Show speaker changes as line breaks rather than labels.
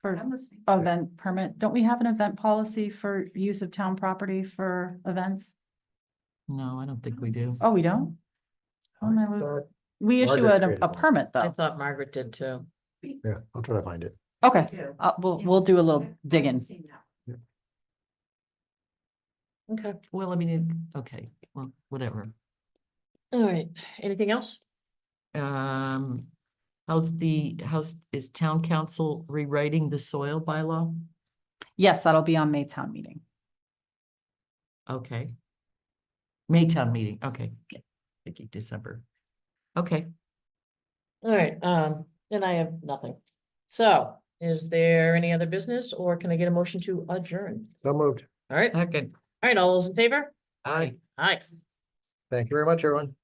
For,
I'm listening.
oh, then permit, don't we have an event policy for use of town property for events?
No, I don't think we do.
Oh, we don't? Oh, my
I
lord.
thought-
We issue
Margaret
a,
created
a
one.
permit
I
though.
thought Margaret did too.
Yeah, I'll try to find it.
Okay,
Too.
uh, we'll,
Yeah.
we'll do a little
I've
digging.
seen that.
Okay, well, I mean, it- okay, well, whatever. All right, anything else? Um, how's the, how's, is town council rewriting the soil bylaw?
Yes, that'll be on May town meeting.
Okay. Maytown meeting, okay, yeah, thinking December. Okay. All right, um, and I have nothing. So is there any other business or can I get a motion to adjourn?
So moved.
All right. Second. All right, all those in favor?
Aye.
Aye.
Thank you very much, everyone.